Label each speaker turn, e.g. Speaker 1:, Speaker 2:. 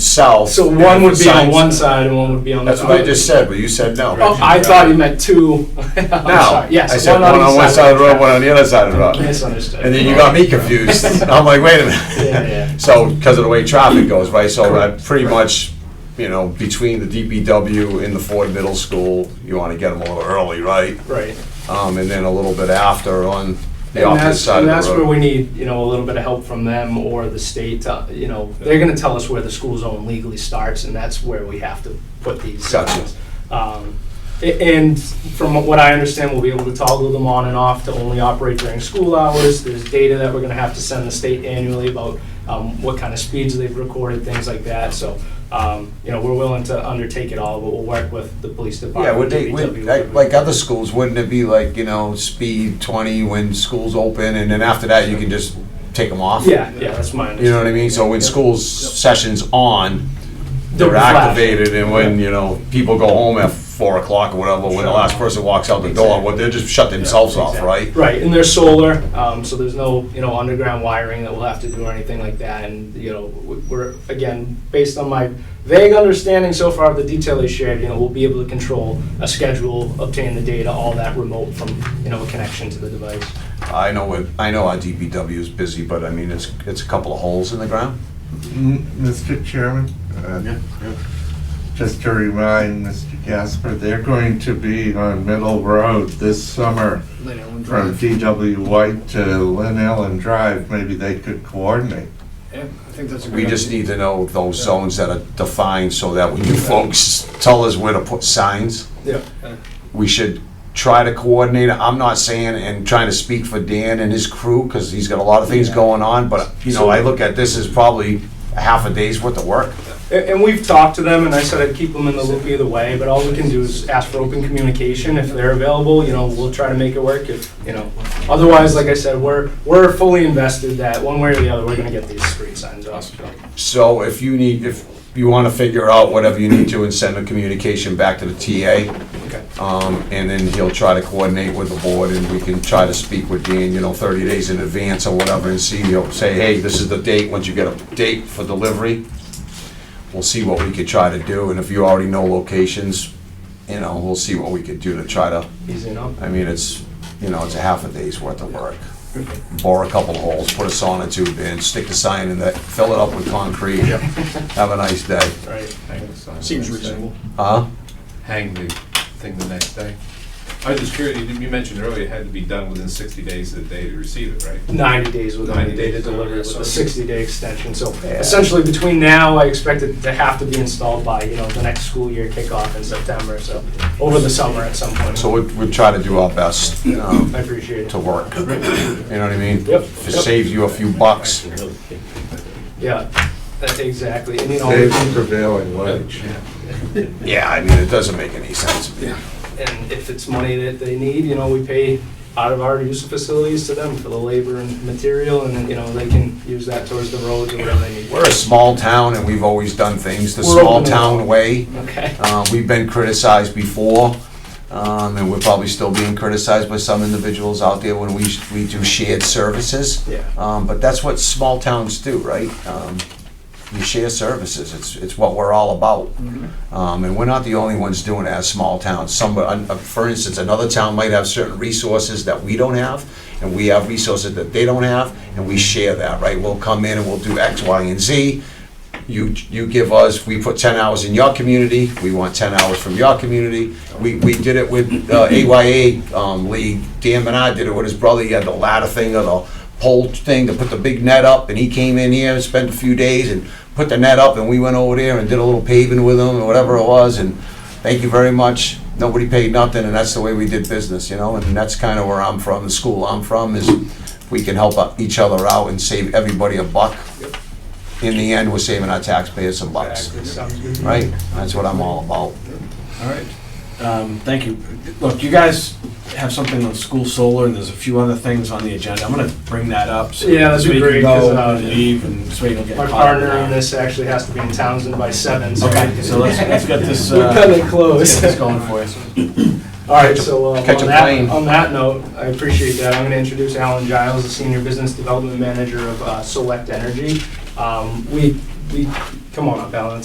Speaker 1: south.
Speaker 2: So one would be on
Speaker 1: Signs-
Speaker 2: one side and one would be on the
Speaker 1: That's
Speaker 2: other.
Speaker 1: what I just said, but you said no.
Speaker 2: Oh, I thought you meant two. I'm
Speaker 1: No,
Speaker 2: sorry.
Speaker 1: I
Speaker 2: Yes,
Speaker 1: said one on
Speaker 2: each
Speaker 1: one side of the road, one on the other side of the road.
Speaker 2: Misunderstood.
Speaker 1: And then you got me confused. I'm like, wait a
Speaker 2: Yeah,
Speaker 1: minute.
Speaker 2: yeah.
Speaker 1: So, because of the way traffic goes, right, so I pretty much, you know, between the DPW and the Ford Middle School, you wanna get them a little early, right?
Speaker 2: Right.
Speaker 1: Um, and then a little bit after on the
Speaker 2: And
Speaker 1: opposite
Speaker 2: that's,
Speaker 1: side
Speaker 2: and
Speaker 1: of
Speaker 2: that's
Speaker 1: the
Speaker 2: where
Speaker 1: road.
Speaker 2: we need, you know, a little bit of help from them or the state, to, you know, they're gonna tell us where the school zone legally starts, and that's where we have to put these.
Speaker 1: Gotcha.
Speaker 2: signs. Um, a- And from what I understand, we'll be able to toggle them on and off to only operate during school hours. There's data that we're gonna have to send the state annually about um, what kind of speeds they've recorded, things like that, so, um, you know, we're willing to undertake it all, but we'll work with the police
Speaker 1: Yeah,
Speaker 2: department.
Speaker 1: would they, would,
Speaker 2: DPW,
Speaker 1: like, like other schools, wouldn't it be like, you know, speed twenty when school's open and then after that you can just take them off?
Speaker 2: Yeah, yeah, that's my understanding.
Speaker 1: You know what I mean? So when school's session's on,
Speaker 2: They'll
Speaker 1: they're
Speaker 2: be flash.
Speaker 1: activated, and when, you know, people go home at four o'clock or whatever, when the last person walks out the door, well, they just shut themselves off, right?
Speaker 2: Right, and they're solar, um, so there's no, you know, underground wiring that we'll have to do or anything like that, and, you know, w- we're, again, based on my vague understanding so far of the detail they shared, you know, we'll be able to control a schedule, obtain the data, all that remote from, you know, a connection to the device.
Speaker 1: I know what, I know our DPW is busy, but I mean, it's, it's a couple of holes in the ground.
Speaker 3: M- Mr. Chairman, uh, just to remind Mr. Gasper, they're going to be on Middle Road this summer from DW White to Lynn Allen Drive. Maybe they could coordinate.
Speaker 4: Yeah, I think that's a good.
Speaker 1: We just need to know those zones that are defined, so that when you folks tell us where to put signs,
Speaker 2: Yeah.
Speaker 1: we should try to coordinate. I'm not saying and trying to speak for Dan and his crew because he's got a lot of things going on, but you know, I look at this as probably a half a day's worth of work.
Speaker 2: And, and we've talked to them, and I said I'd keep them in the loop either way, but all we can do is ask for open communication. If they're available, you know, we'll try to make it work if, you know. Otherwise, like I said, we're, we're fully invested that one way or the other, we're gonna get these street signs up.
Speaker 1: So if you need, if you want to figure out whatever you need to and send a communication back to the TA,
Speaker 2: Okay.
Speaker 1: um, and then he'll try to coordinate with the board and we can try to speak with Dan, you know, thirty days in advance or whatever and see, you know, say, hey, this is the date, once you get a date for delivery, we'll see what we could try to do, and if you already know locations, you know, we'll see what we could do to try to,
Speaker 2: Easy enough.
Speaker 1: I mean, it's, you know, it's a half a day's worth of work. Bore a couple holes, put a sonotube in, stick the sign in that, fill it up with concrete, have a nice day.
Speaker 2: All right.
Speaker 4: Seems reasonable.
Speaker 1: Huh?
Speaker 5: hang the thing the next day. I was just curious, you you mentioned earlier it had to be done within sixty days of the day to receive it, right?
Speaker 2: 90 days with
Speaker 5: 90
Speaker 2: 90 day to
Speaker 5: days,
Speaker 2: deliver with
Speaker 5: so-
Speaker 2: a 60 day extension. So essentially between now, I expect it to have to be installed by, you know, the next school year kickoff in September, so over the summer at some point.
Speaker 1: So we, we try to do our best, um,
Speaker 2: I appreciate it.
Speaker 1: to work. You know what I mean?
Speaker 2: Yep.
Speaker 1: If it saves you a few bucks.
Speaker 2: Yeah, that- exactly. And you know,
Speaker 3: Save the prevailing wage.
Speaker 1: Yeah, I mean, it doesn't make any sense.
Speaker 2: and if it's money that they need, you know, we pay out of our use of facilities to them for the labor and material, and then, you know, they can use that towards the roads or whatever they need.
Speaker 1: We're a small town and we've always done things the
Speaker 2: We're open
Speaker 1: small
Speaker 2: to-
Speaker 1: town way.
Speaker 2: Okay.
Speaker 1: Uh, we've been criticized before, um, and we're probably still being criticized by some individuals out there when we, we do shared services.
Speaker 2: Yeah.
Speaker 1: Um, but that's what small towns do, right? Um, you share services, it's, it's what we're all about. Um, and we're not the only ones doing it as small towns. Some, uh, for instance, another town might have certain resources that we don't have, and we have resources that they don't have, and we share that, right? We'll come in and we'll do X, Y, and Z. You, you give us, we put ten hours in your community, we want ten hours from your community. We, we did it with, uh, AYA, um, League, Dan and I did it with his brother, he had the ladder thing or the pole thing to put the big net up, and he came in here and spent a few days and put the net up, and we went over there and did a little paving with him, or whatever it was, and thank you very much. Nobody paid nothing, and that's the way we did business, you know, and that's kinda where I'm from, the school I'm from, is we can help out each other out and save everybody a buck. In the end, we're saving our taxpayers some bucks,
Speaker 2: Exactly, sounds good.
Speaker 1: right? That's what I'm all about.
Speaker 6: All right. Um, Thank you. Look, you guys have something on school solar, and there's a few other things on the agenda. I'm gonna bring that up. so-
Speaker 2: Yeah, that'd be
Speaker 6: So
Speaker 2: great,
Speaker 6: you
Speaker 2: 'cause,
Speaker 6: can
Speaker 2: uh,
Speaker 6: go and leave, and so you don't get
Speaker 2: My
Speaker 6: caught.
Speaker 2: partner in this actually has to be in Townsend by seven, so.
Speaker 6: Okay, so let's, let's get this, uh,
Speaker 2: We're kinda
Speaker 6: let's
Speaker 2: close.
Speaker 6: get this going for you.
Speaker 2: All right, so uh, on
Speaker 1: Catch a plane.
Speaker 2: that, on that note, I appreciate that. I'm going to introduce Alan Giles, the Senior Business Development Manager of uh, Select Energy. Um, We, we, come on up, Alan,